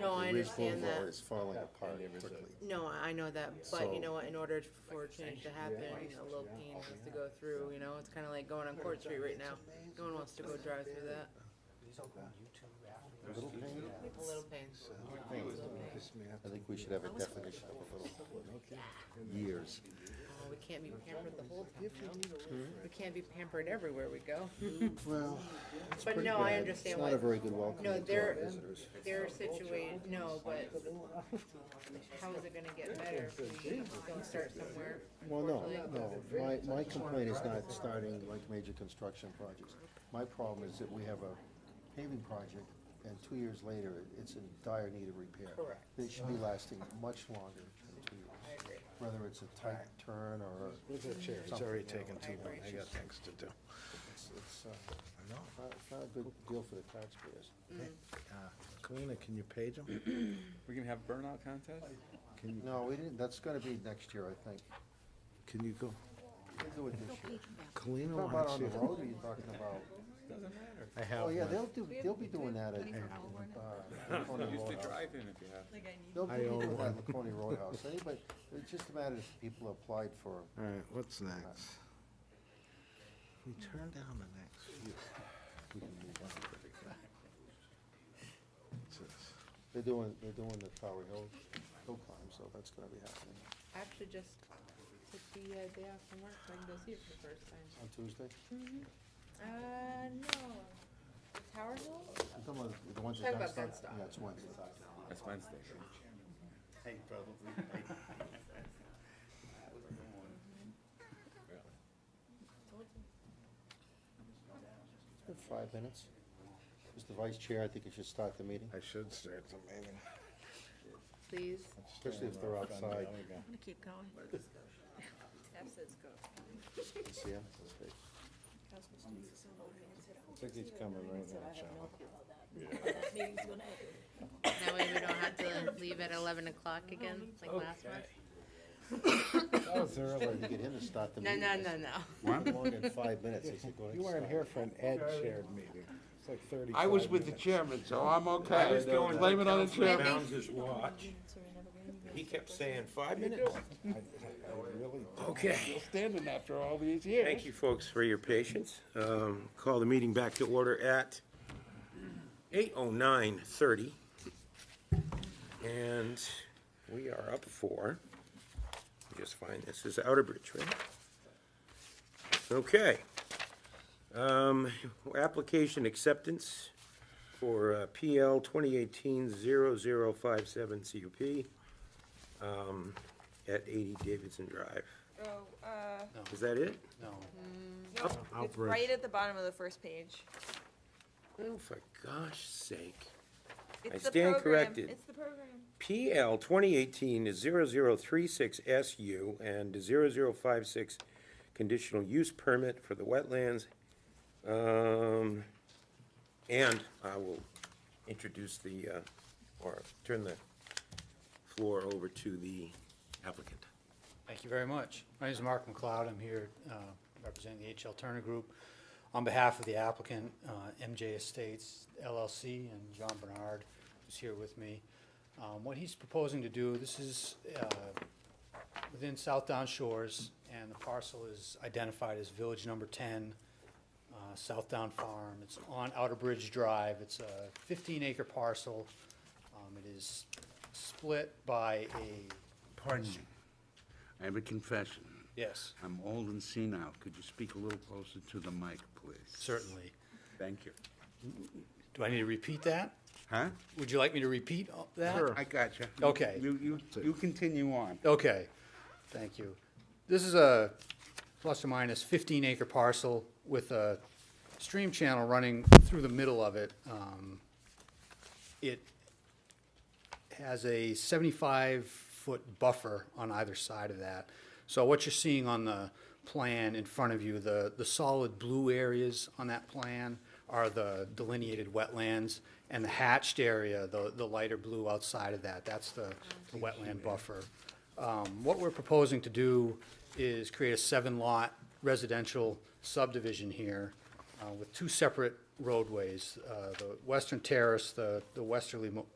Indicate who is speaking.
Speaker 1: No, I
Speaker 2: The Ridge
Speaker 1: understand
Speaker 2: Boulevard
Speaker 1: that.
Speaker 2: is falling apart quickly.
Speaker 1: No, I know that, but you know what, in order for change to happen,
Speaker 3: Yeah.
Speaker 1: a little pain has to go through, you know, it's kinda like going on Court Street right now. No one wants to go drive through that.
Speaker 2: Little pain,
Speaker 1: A little pain.
Speaker 2: this may have to- I think we should have a definition of a little years.
Speaker 1: Oh, we can't be pampered the whole time, you know? We can't be pampered everywhere we go.
Speaker 2: Well, it's
Speaker 1: But
Speaker 2: pretty
Speaker 1: no, I
Speaker 2: bad.
Speaker 1: understand
Speaker 2: It's not a
Speaker 1: what-
Speaker 2: very good welcome to
Speaker 1: No,
Speaker 2: our
Speaker 1: they're-
Speaker 2: visitors.
Speaker 1: Their situation, no, but how is it gonna get better if we don't start somewhere?
Speaker 2: Well, no,
Speaker 1: Unfortunately.
Speaker 2: no, my, my complaint is not starting like major construction projects. My problem is that we have a paving project, and two years later, it- it's in dire need of repair.
Speaker 1: Correct.
Speaker 2: It should be lasting much longer than two years,
Speaker 1: agree.
Speaker 2: whether it's a tight turn or a
Speaker 4: Look at that chair, it's already taken too long, I got things to do.
Speaker 2: It's, it's, uh, not, it's not a good deal for the taxpayers.
Speaker 4: Uh, Kalina, can you page them?
Speaker 5: We can have burnout contest?
Speaker 4: Can you,
Speaker 2: No, we didn't, that's gonna be next year, I think.
Speaker 4: can you go?
Speaker 2: We'll do it this year.
Speaker 4: Kalina
Speaker 2: Talking about
Speaker 4: wants
Speaker 2: on
Speaker 4: you.
Speaker 2: the road, are you talking about?
Speaker 5: Doesn't matter.
Speaker 4: I have
Speaker 2: Oh, yeah,
Speaker 4: one.
Speaker 2: they'll do, they'll be doing that at. uh, Laconia
Speaker 5: Used to
Speaker 2: Roadhouse.
Speaker 5: drive in if you have. to.
Speaker 2: They'll be
Speaker 4: I
Speaker 2: doing
Speaker 4: own
Speaker 2: that at Laconia Roadhouse, anybody, it's just a matter if people applied for,
Speaker 4: All right, what's next? We turn down the next few. We can move on pretty quick. What's this?
Speaker 2: they're doing, they're doing the Tower Hill, Hill climb, so that's gonna be happening
Speaker 1: I actually just took the uh, day off from work so I can go see it for the first time.
Speaker 2: on Tuesday.
Speaker 6: Mm-hmm.
Speaker 1: Uh, no. The Tower Hill?
Speaker 2: I'm talking about the ones
Speaker 1: Talk
Speaker 2: that got
Speaker 1: about that
Speaker 2: stuck.
Speaker 1: stuff.
Speaker 2: Yeah, it's Wednesday.
Speaker 5: That's Wednesday.
Speaker 2: It's been five minutes. Mr. Vice Chair, I think you should start the meeting,
Speaker 4: I should start the meeting.
Speaker 1: Please.
Speaker 2: especially if they're outside.
Speaker 6: I'm gonna keep going. Tab says go.
Speaker 2: See ya. Okay.
Speaker 4: Ticket's coming right now, Sean.
Speaker 1: That way we don't have to leave at eleven o'clock again, like last month.
Speaker 4: That was early.
Speaker 2: Trying to get him to start the
Speaker 1: No,
Speaker 2: meeting.
Speaker 1: no, no, no.
Speaker 2: Longer than five minutes, I said, go ahead.
Speaker 4: You weren't here for an ad shared meeting. It's like thirty-five
Speaker 7: I was with the
Speaker 4: minutes.
Speaker 7: chairman, so Oh, I'm okay. Blame it on the chairman.
Speaker 8: Bounds his watch. He kept saying five minutes.
Speaker 7: Still standing after all these years.
Speaker 8: Thank you, folks, for your patience. Um, Call the meeting back to order at 8:09:30. And we are up for, let me just find this, is Outer Bridge, right? Okay. Um, Application acceptance for uh, PL 2018-0057 CUP um, at 80 Davidson Drive.
Speaker 6: Oh, uh,
Speaker 8: Is that it?
Speaker 6: nope, it's right at the bottom of the first page.
Speaker 8: Oh, for gosh sake. I
Speaker 6: It's the
Speaker 8: stand
Speaker 6: program.
Speaker 8: corrected.
Speaker 6: It's the program.
Speaker 8: PL 2018 is 0036SU and 0056 conditional use permit for the wetlands. Um, And I will introduce the, uh, or turn the floor over to the applicant.
Speaker 9: Thank you very much. My name is Mark McLeod. I'm here uh, representing the H.L. Turner Group on behalf of the applicant, uh, MJ Estates LLC, and John Bernard, who's here with me. Um, What he's proposing to do, this is uh, within South Down Shores, and the parcel is identified as Village Number 10, uh, South Down Farm. It's on Outer Bridge Drive. It's a 15-acre parcel. Um, It is split by a,
Speaker 7: Pardon me. I have a confession.
Speaker 9: yes.
Speaker 7: I'm old and senile. Could you speak a little closer to the mic, please?
Speaker 9: Certainly.
Speaker 7: Thank you.
Speaker 9: Do I need to repeat that?
Speaker 7: Huh?
Speaker 9: Would you like me to repeat all that?
Speaker 7: I got you.
Speaker 9: Okay.
Speaker 7: You, you, you continue on.
Speaker 9: Okay, thank you. This is a plus or minus fifteen acre parcel with a stream channel running through the middle of it. Um, It has a seventy-five foot buffer on either side of that. So what you're seeing on the plan in front of you, the, the solid blue areas on that plan are the delineated wetlands, and the hatched area, the, the lighter blue outside of that, that's the the wetland buffer. Um, What we're proposing to do is create a seven-lot residential subdivision here uh, with two separate roadways. Uh, The western terrace, the the westerly mo-